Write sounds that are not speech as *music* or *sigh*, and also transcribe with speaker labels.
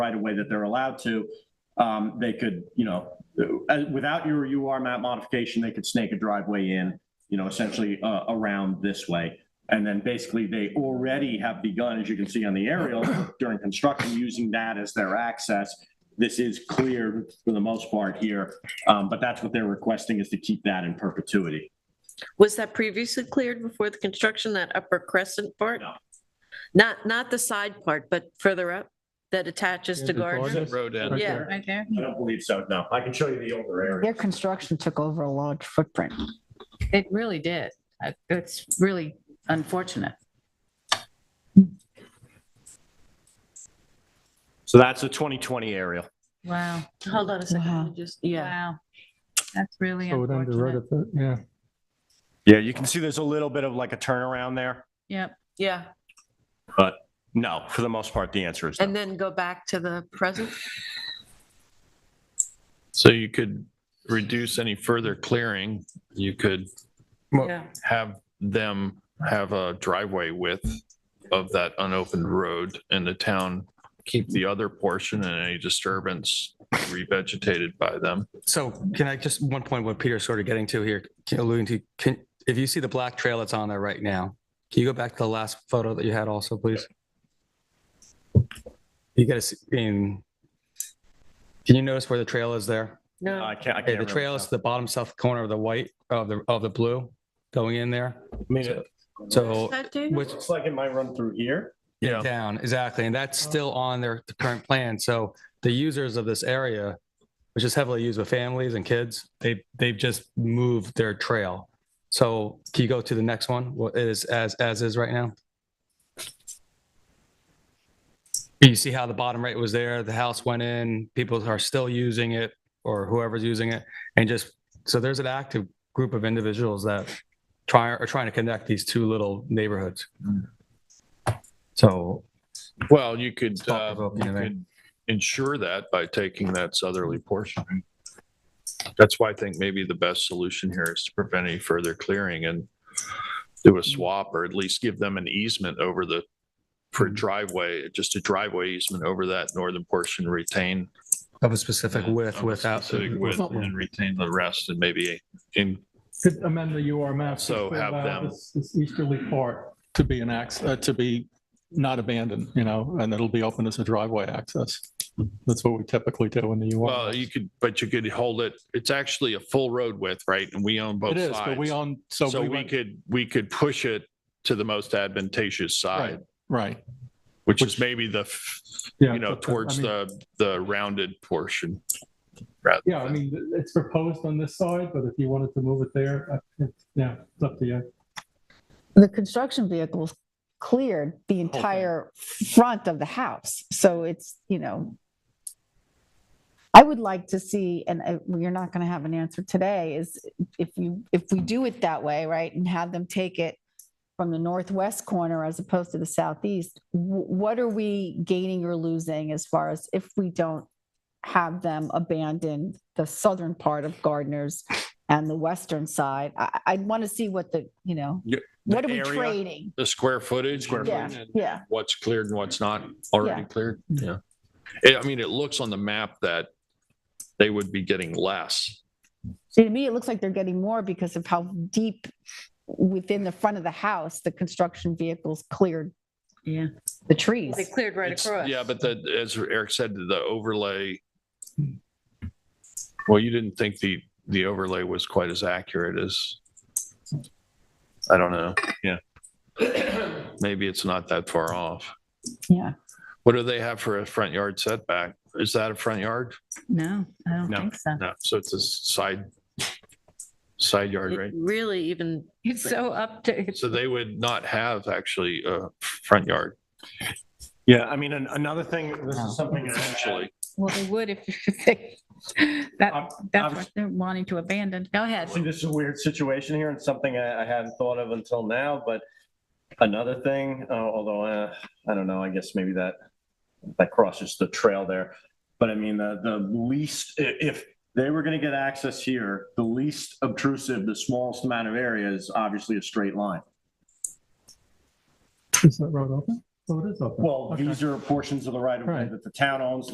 Speaker 1: right of way that they're allowed to, um, they could, you know, uh, without your UR map modification, they could snake a driveway in, you know, essentially, uh, around this way. And then basically they already have begun, as you can see on the aerial during construction, using that as their access. This is clear for the most part here, um, but that's what they're requesting is to keep that in perpetuity.
Speaker 2: Was that previously cleared before the construction, that upper crescent part?
Speaker 1: No.
Speaker 2: Not, not the side part, but further up that attaches to
Speaker 3: the
Speaker 2: Gardner?
Speaker 3: garden.
Speaker 4: Road end.
Speaker 2: Yeah.
Speaker 5: Right there?
Speaker 1: I don't believe so, no. I can show you the older area.
Speaker 6: Their construction took over a large footprint.
Speaker 5: It really did. Uh, It's really unfortunate.
Speaker 1: So that's a 2020 aerial.
Speaker 5: Wow.
Speaker 2: Hold on a second, let me just, yeah.
Speaker 5: Wow. That's really
Speaker 3: So it ended right
Speaker 5: unfortunate.
Speaker 3: at the, yeah.
Speaker 1: Yeah, you can see there's a little bit of like a turnaround there.
Speaker 5: Yep.
Speaker 2: Yeah,
Speaker 1: No, for the most part, the answer is no.
Speaker 2: and then go back to the present?
Speaker 4: So you could reduce any further clearing. You could
Speaker 3: Well-
Speaker 2: Yeah.
Speaker 4: have them have a driveway width of that unopened road and the town keep the other portion and any disturbance revegetated by them.
Speaker 7: So can I just, one point what Peter's sort of getting to here, alluding to, can, if you see the black trail that's on there right now, can you go back to the last photo that you had also, please? You gotta see, in, can you notice where the trail is there?
Speaker 2: No,
Speaker 1: I can't, I
Speaker 7: Okay,
Speaker 1: can't.
Speaker 7: the trail is to the bottom south corner of the white, of the, of the blue going in there. So
Speaker 2: That, David?
Speaker 7: which,
Speaker 1: Looks like it might run through here.
Speaker 4: Yeah.
Speaker 7: down, exactly. And that's still on their current plan. So the users of this area, which is heavily used with families and kids, they, they've just moved their trail. So can you go to the next one? What it is as, as is right now? You see how the bottom right was there, the house went in, people are still using it or whoever's using it. And just, so there's an active group of individuals that try, are trying to connect these two little neighborhoods. So
Speaker 4: Well, you could,
Speaker 7: Thought
Speaker 4: uh,
Speaker 7: provoking,
Speaker 4: you
Speaker 7: right?
Speaker 4: could ensure that by taking that southerly portion. That's why I think maybe the best solution here is to prevent any further clearing and do a swap or at least give them an easement over the, for
Speaker 3: Hmm.
Speaker 4: driveway, just a driveway easement over that northern portion retain.
Speaker 7: Of a specific width,
Speaker 4: of a
Speaker 7: without.
Speaker 4: specific width And retain the rest and maybe in,
Speaker 3: Could amend the UR map. to
Speaker 4: So have
Speaker 3: allow
Speaker 4: them-
Speaker 3: This this easterly part to be an access, uh, to be not abandoned, you know, and it'll be open as a driveway access. That's what we typically do in the UR.
Speaker 4: well, you could, but you could hold it, it's actually a full road width, right? And we own both
Speaker 3: It is,
Speaker 4: sides.
Speaker 3: but we own, so.
Speaker 4: So we
Speaker 3: went-
Speaker 4: could, we could push it to the most advantageous
Speaker 3: Right,
Speaker 4: side,
Speaker 3: right.
Speaker 4: which is maybe the, f-
Speaker 3: Yeah,
Speaker 4: you know,
Speaker 3: but the- I
Speaker 4: towards
Speaker 3: mean-
Speaker 4: the, the rounded portion. rather
Speaker 3: Yeah, I
Speaker 4: than-
Speaker 3: mean, th- it's proposed on this side, but if you wanted to move it there, uh, it's- yeah, it's up to you.
Speaker 6: The construction vehicles cleared the
Speaker 3: thing.
Speaker 6: entire front of the house. So it's, you know, I would like to see, and I- well, you're not going to have an answer today, is if you, if we do it that way, right? And have them take it from the northwest corner as opposed to the southeast, wh- what are we gaining or losing as far as if we don't have them abandon the southern part of Gardner's and the western side? I, I- I'd want to see what the, you know,
Speaker 4: Yeah,
Speaker 6: what are
Speaker 1: the
Speaker 6: we
Speaker 1: area.
Speaker 6: trading?
Speaker 4: The square footage.
Speaker 1: Square
Speaker 6: Yeah, yeah.
Speaker 4: What's cleared and what's not already
Speaker 6: Yeah.
Speaker 4: cleared. Yeah. It- I mean, it looks on the map that they would be getting less.
Speaker 6: See, to me, it looks like they're getting more because of how deep within the front of the house, the construction vehicles cleared
Speaker 5: Yeah.
Speaker 6: the trees.
Speaker 2: They cleared right
Speaker 4: It's-
Speaker 2: across.
Speaker 4: Yeah, but the, as Eric said, the overlay. Hmm. Well, you didn't think the, the overlay was quite as accurate as, I don't know. Yeah. *coughs* Maybe it's not that far off.
Speaker 6: Yeah.
Speaker 4: What do they have for a front yard setback? Is that a front yard?
Speaker 5: No, I don't
Speaker 4: No.
Speaker 5: think so.
Speaker 4: No, so it's a side, side yard, right?
Speaker 2: It Really even,
Speaker 5: It's so up to, it's
Speaker 4: So they would not have actually a front yard,
Speaker 1: Yeah, I mean, an- another thing, this
Speaker 7: Wow.
Speaker 1: is something actually.
Speaker 4: actually.
Speaker 5: Well, they would if *laughs* if they, that, that's what they're wanting to abandon. Go ahead.
Speaker 1: See, this is a weird situation here and something I, I hadn't thought of until now, but another thing, uh, although, uh, I don't know, I guess maybe that, that crosses the trail there. But I mean, the, the least, i- if they were gonna get access here, the least obtrusive, the smallest amount of area is obviously a straight line.
Speaker 3: Is that road open? Oh, it is open.
Speaker 1: Well,
Speaker 3: Okay.
Speaker 1: these are portions of the right of way
Speaker 3: Right.
Speaker 1: that the town owns,